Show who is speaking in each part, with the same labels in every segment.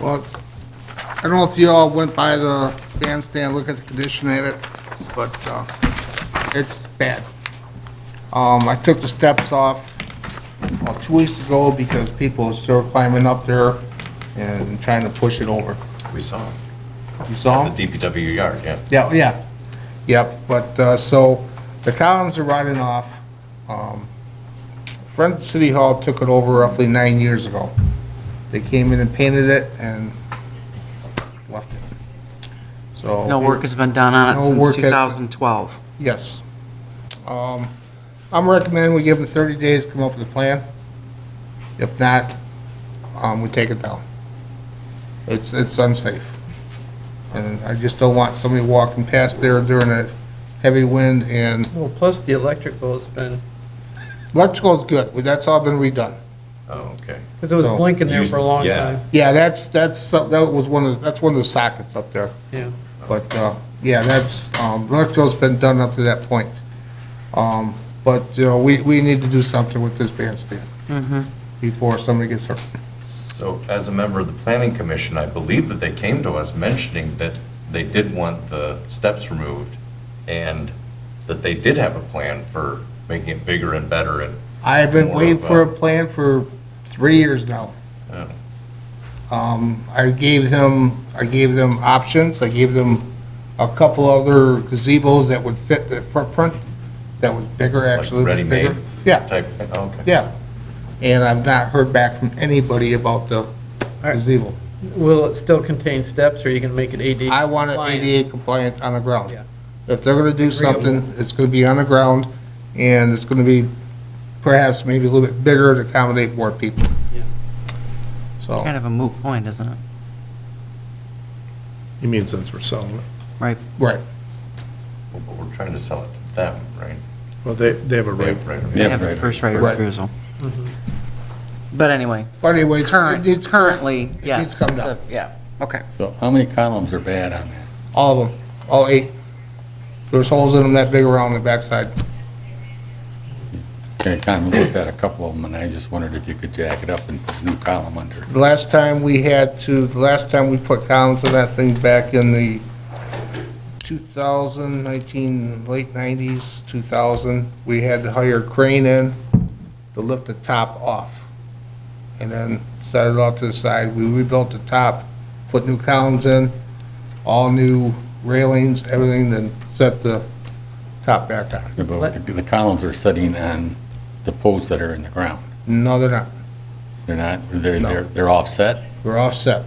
Speaker 1: Well, I don't know if you all went by the bandstand, look at the condition at it, but uh, it's bad. Um, I took the steps off well, two weeks ago because people are still climbing up there and trying to push it over.
Speaker 2: We saw him.
Speaker 1: You saw 'em?
Speaker 2: The DPW yard, yeah.
Speaker 1: Yeah, yeah, yep, but, uh, so, the columns are rotting off. Um, Friends of City Hall took it over roughly nine years ago. They came in and painted it and left it. So.
Speaker 3: No work has been done on it
Speaker 1: No work
Speaker 3: since
Speaker 1: has-
Speaker 3: 2012.
Speaker 1: Yes. Um, I'm recommending we give them thirty days, to come up with a plan. If not, um, we take it down. It's, it's unsafe. And I just don't want somebody walking past there during a heavy wind and
Speaker 4: Well, plus the electrical's been,
Speaker 1: electrical's good, Well, that's all been redone.
Speaker 2: Oh, okay.
Speaker 4: because it was
Speaker 1: So-
Speaker 4: blinking there for a long
Speaker 2: Yeah.
Speaker 4: time.
Speaker 1: Yeah, that's, that's, some- that was one of, that's one of the sockets up there.
Speaker 4: Yeah.
Speaker 1: But, uh, yeah, that's, um, electrical's been done up to that point. Um, But, you know, we, we need to do something with this bandstand before somebody gets hurt.
Speaker 2: So as a member of the planning commission, I believe that they came to us mentioning that they did want the steps removed and that they did have a plan for making it bigger and better and,
Speaker 1: I have been
Speaker 2: More
Speaker 1: waiting
Speaker 2: of
Speaker 1: for
Speaker 2: a-
Speaker 1: a plan for three years now.
Speaker 2: uh,
Speaker 1: Um, I gave them, I gave them options, I gave them a couple other gazebos that would fit the footprint, that was bigger,
Speaker 2: like
Speaker 1: actually.
Speaker 2: ready-made
Speaker 1: bigger. Yeah,
Speaker 2: type, thing. Oh, okay.
Speaker 1: yeah. And I've not heard back from anybody about the
Speaker 4: right.
Speaker 1: gazebo.
Speaker 4: Will it still contain steps, or you can make it ADA?
Speaker 1: I want it
Speaker 4: compliant?
Speaker 1: ADA compliant on the ground.
Speaker 4: Yeah.
Speaker 1: If they're gonna do something, it's gonna be on the ground, and it's gonna be perhaps maybe a little bit bigger to accommodate more people.
Speaker 4: Yeah.
Speaker 1: So.
Speaker 3: Kind of a moot point, isn't it?
Speaker 5: You mean since we're selling it?
Speaker 3: Right.
Speaker 1: Right.
Speaker 2: Well, But we're trying to sell it to them, right?
Speaker 5: Well, they, they have a
Speaker 2: They
Speaker 5: right.
Speaker 2: have right of-
Speaker 3: They have the first right of
Speaker 1: Right.
Speaker 3: refusal. But anyway,
Speaker 1: But anyway, it's-
Speaker 3: current,
Speaker 1: it's current,
Speaker 3: currently,
Speaker 1: needs
Speaker 3: yes.
Speaker 1: to come
Speaker 3: it's a-
Speaker 1: down.
Speaker 3: Yeah, okay.
Speaker 6: So how many columns are bad on that?
Speaker 1: all of them, all eight. There's holes in them that big around the backside.
Speaker 6: Okay, I kind of looked at a couple of them, and I just wondered if you could jack it up and put a new column under.
Speaker 1: The last time we had to, the last time we put columns on that thing back in the 2000, 19, late 90s, 2000, we had to hire a crane in to lift the top off. And then set it off to the side. We rebuilt the top, put new columns in, all new railings, everything, then set the top back on.
Speaker 6: Yeah, but The the columns are sitting on the posts that are in the ground.
Speaker 1: No, they're not.
Speaker 6: They're not, they're,
Speaker 1: No.
Speaker 6: they're, they're offset?
Speaker 1: We're offset.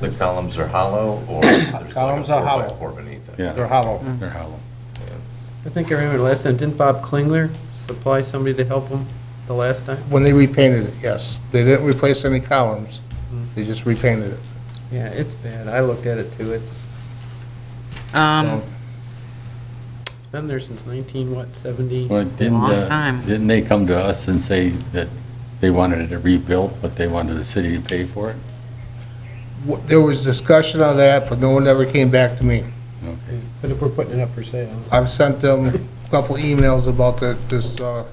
Speaker 2: The columns are hollow or there's like a
Speaker 1: Columns are hollow.
Speaker 2: four by four beneath it.
Speaker 1: They're
Speaker 6: Yeah,
Speaker 1: hollow.
Speaker 3: Mm.
Speaker 6: they're hollow.
Speaker 4: I think I remember last time, didn't Bob Klingler supply somebody to help him the last time?
Speaker 1: When they repainted it, yes. They didn't replace any columns, they just repainted it.
Speaker 4: Yeah, it's bad. I looked at it too. It's,
Speaker 3: Um,
Speaker 4: it's been there since 19, what, 70?
Speaker 6: Well, didn't,
Speaker 3: Long
Speaker 6: uh,
Speaker 3: time.
Speaker 6: Didn't they come to us and say that they wanted it rebuilt, but they wanted the city to pay for it?
Speaker 1: W- There was discussion on that, but no one ever came back to me.
Speaker 6: Okay,
Speaker 4: But if we're putting it up for sale.
Speaker 1: I've sent them a couple emails about the- this uh,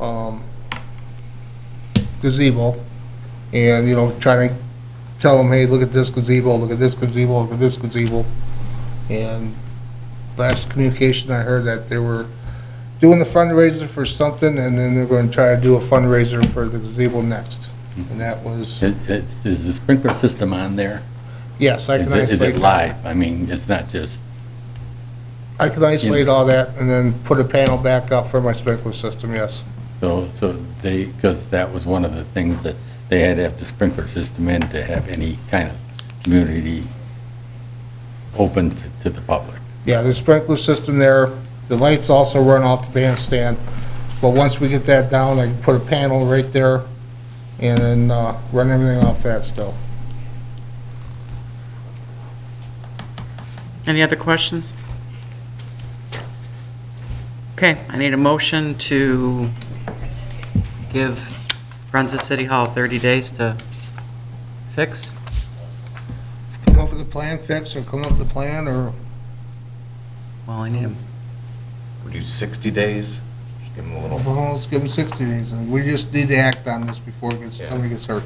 Speaker 1: um, gazebo, and, you know, trying to tell them, hey, look at this gazebo, look at this gazebo, look at this gazebo. And last communication, I heard that they were doing the fundraiser for something, and then they're going to try to do a fundraiser for the gazebo next. And that was,
Speaker 6: Is- is, is the sprinkler system on there?
Speaker 1: yes, I
Speaker 6: Is
Speaker 1: can
Speaker 6: it, is it
Speaker 1: isolate,
Speaker 6: live? I mean, it's not just,
Speaker 1: I can isolate all that, and then put a panel back up for my sprinkler system, yes.
Speaker 6: so, so they, because that was one of the things that they had to have the sprinkler system in to have any kind of community open to to the public.
Speaker 1: Yeah, there's sprinkler system there. The lights also run off the bandstand. But once we get that down, I can put a panel right there and then uh, run everything off that still.
Speaker 3: any other questions? Okay, I need a motion to give Friends of City Hall 30 days to fix.
Speaker 1: Come up with a plan fix or come up with a plan or,
Speaker 3: Well, I need a
Speaker 2: We do 60 days, just give them a little
Speaker 1: well, let's give them 60 days. And we just need to act on this before it gets- somebody gets hurt.